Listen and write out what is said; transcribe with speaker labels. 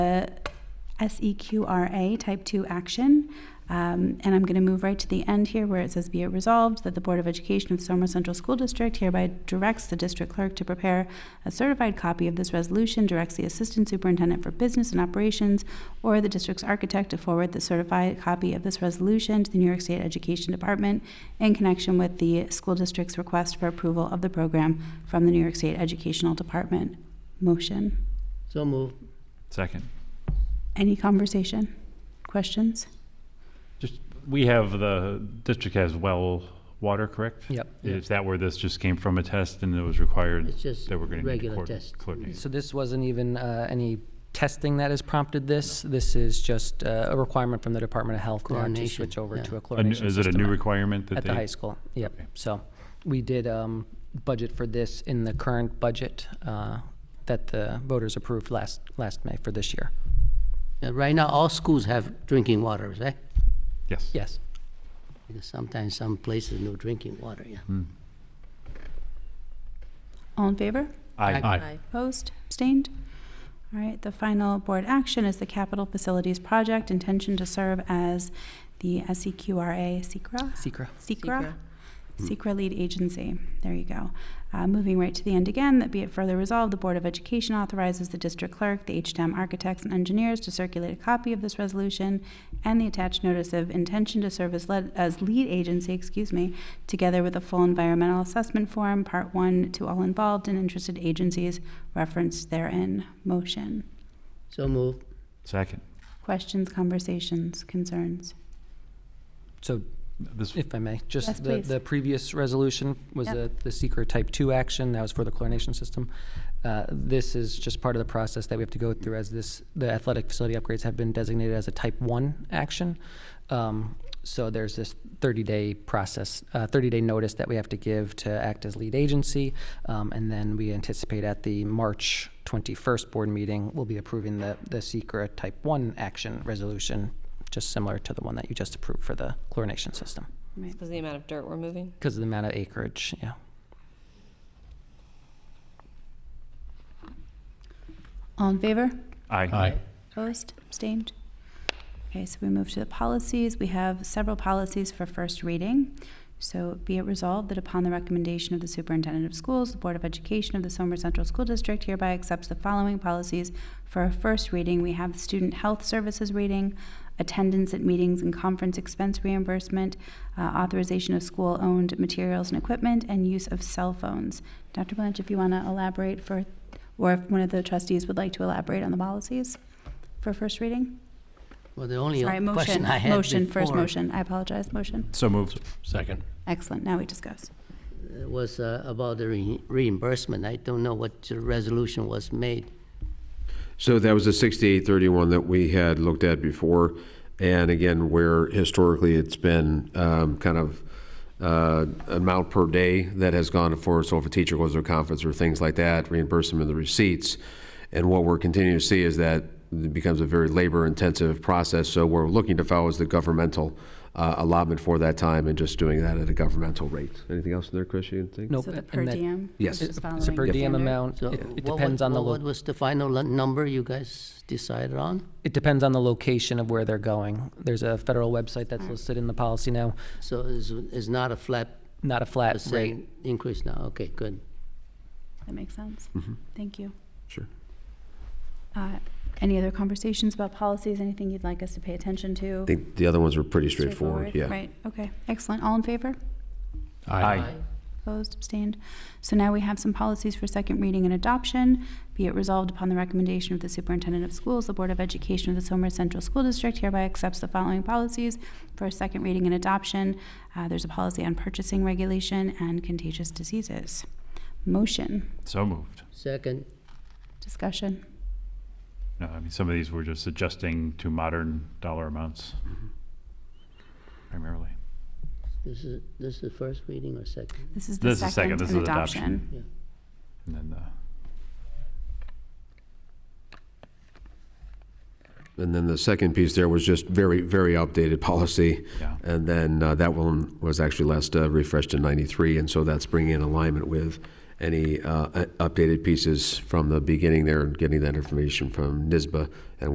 Speaker 1: uh, E SEQRA Type 2 action. Um, And I'm going to move right to the end here where it says, "Be it resolved that the Board of Education of Somer Central School District hereby directs the district clerk to prepare a certified copy of this resolution, directs the Assistant Superintendent for Business and Operations or the district's architect to forward the certified copy of this resolution to the New York State Education Department in connection with the school district's request for approval of the program from the New York State Educational Department." Motion.
Speaker 2: So move.
Speaker 3: Second.
Speaker 1: Any conversation? Questions?
Speaker 3: Just, we have, the district has well water, correct?
Speaker 2: Yep.
Speaker 3: Is that where this just came from, a test, and it was required
Speaker 2: It's just
Speaker 3: that we're going to need to
Speaker 2: regular
Speaker 3: coord-
Speaker 2: test.
Speaker 3: coordinate?
Speaker 4: So this wasn't even uh, any testing that has prompted this? This is just uh, a requirement from the Department of Health now to
Speaker 2: Chlorination,
Speaker 4: switch over
Speaker 2: yeah.
Speaker 4: to a
Speaker 3: A new-
Speaker 4: chlorination system?
Speaker 3: Is it a new
Speaker 4: at-
Speaker 3: requirement that
Speaker 4: At
Speaker 3: they?
Speaker 4: the high school, yep.
Speaker 3: Okay.
Speaker 4: So we did um, budget for this in the current budget uh, that the voters approved last, last May for this year.
Speaker 2: Uh, Right now, all schools have drinking water, right?
Speaker 3: Yes.
Speaker 4: Yes.
Speaker 2: Because sometimes some places no drinking water, yeah.
Speaker 1: All in favor?
Speaker 3: Aye.
Speaker 5: Aye.
Speaker 1: Opposed? Abstained? All right, the final board action is the Capital Facilities Project, intention to serve as the E SEQRA, SECRA?
Speaker 4: Secra.
Speaker 1: SECRA? Mm. SECRA lead agency. There you go. Uh, moving right to the end again, that be it further resolved, the Board of Education authorizes the district clerk, the HDM architects and engineers to circulate a copy of this resolution and the attached notice of intention to serve as lead, as lead agency, excuse me, together with a full environmental assessment form, part one, to all involved and interested agencies referenced therein. Motion.
Speaker 2: So move.
Speaker 3: Second.
Speaker 1: Questions, conversations, concerns?
Speaker 4: So
Speaker 3: This,
Speaker 4: if I may,
Speaker 1: Yes,
Speaker 4: just the,
Speaker 1: please.
Speaker 4: the previous resolution was
Speaker 1: Yep.
Speaker 4: the, the secret type two action, that was for the chlorination system. Uh, This is just part of the process that we have to go through as this, the athletic facility upgrades have been designated as a type one action. Um, So there's this thirty-day process, uh, thirty-day notice that we have to give to act as lead agency. Um, And then we anticipate at the March twenty-first board meeting, we'll be approving the, the secret type one action resolution, just similar to the one that you just approved for the chlorination system.
Speaker 1: Right.
Speaker 5: Because of the amount of dirt we're moving.
Speaker 4: Because of the amount of acreage, yeah.
Speaker 1: All in favor?
Speaker 3: aye.
Speaker 2: Aye.
Speaker 1: Opposed, abstained? Okay, so we move to the policies. We have several policies for first reading. So be it resolved that upon the recommendation of the superintendent of schools, the Board of Education of the Somer Central School District hereby accepts the following policies for a first reading. We have student health services reading, attendance at meetings and conference expense reimbursement, uh, authorization of school-owned materials and equipment, and use of cell phones. Dr. Blanche, if you want to elaborate for, or if one of the trustees would like to elaborate on the policies? for first reading?
Speaker 2: Well, the only
Speaker 1: Sorry, motion,
Speaker 2: question I had
Speaker 1: motion, first
Speaker 2: before,
Speaker 1: motion, I apologize, motion.
Speaker 3: So moved.
Speaker 6: Second.
Speaker 1: Excellent, now we discuss.
Speaker 2: uh, Was uh, about the re- reimbursement. I don't know what the resolution was made.
Speaker 6: So that was a 6831 that we had looked at before. And again, where historically it's been um, kind of uh, amount per day that has gone for, so if a teacher goes to a conference or things like that, reimburse them in the receipts. And what we're continuing to see is that it becomes a very labor-intensive process. So we're looking to follow is the governmental uh, allotment for that time and just doing that at a governmental rate. Anything else in there, Chris, you think?
Speaker 4: Nope,
Speaker 1: So the
Speaker 4: and
Speaker 1: per
Speaker 4: that-
Speaker 1: diem?
Speaker 6: Yes.
Speaker 1: which is
Speaker 4: It's a
Speaker 1: following
Speaker 4: per
Speaker 1: the
Speaker 4: diem
Speaker 1: standard.
Speaker 4: amount.
Speaker 2: So
Speaker 4: It it
Speaker 2: what was-
Speaker 4: depends on the,
Speaker 2: What
Speaker 4: lo-
Speaker 2: was the final lo- number you guys decided on?
Speaker 4: it depends on the location of where they're going. There's a federal website that's listed in the policy now,
Speaker 2: So it's, it's not a flat
Speaker 4: not a flat rate.
Speaker 2: percent increase now? Okay, good.
Speaker 1: That makes sense,
Speaker 6: Mm-hmm.
Speaker 1: thank you.
Speaker 6: Sure.
Speaker 1: Uh, Any other conversations about policies, anything you'd like us to pay attention
Speaker 6: I
Speaker 1: to?
Speaker 6: think the other ones were pretty straightforward, yeah.
Speaker 1: Right, okay, excellent, all in favor?
Speaker 3: Aye.
Speaker 1: Opposed, abstained. So now we have some policies for second reading and adoption. Be it resolved upon the recommendation of the superintendent of schools, the Board of Education of the Somer Central School District hereby accepts the following policies for second reading and adoption. Uh, there's a policy on purchasing regulation and contagious diseases. Motion,
Speaker 3: So moved.
Speaker 2: Second,
Speaker 1: discussion.
Speaker 3: No, I mean, some of these were just adjusting to modern dollar amounts primarily.
Speaker 2: this is, this is first reading or second?
Speaker 1: This is the
Speaker 3: This is second,
Speaker 1: second
Speaker 3: this
Speaker 1: and
Speaker 3: is adoption.
Speaker 1: adoption.
Speaker 2: Yeah.
Speaker 3: And then the.
Speaker 6: And then the second piece there was just very, very updated policy.
Speaker 3: Yeah.
Speaker 6: And then uh, that one was actually last uh, refreshed in 93, and so that's bringing in alignment with any uh, u- updated pieces from the beginning there and getting that information from NISBA and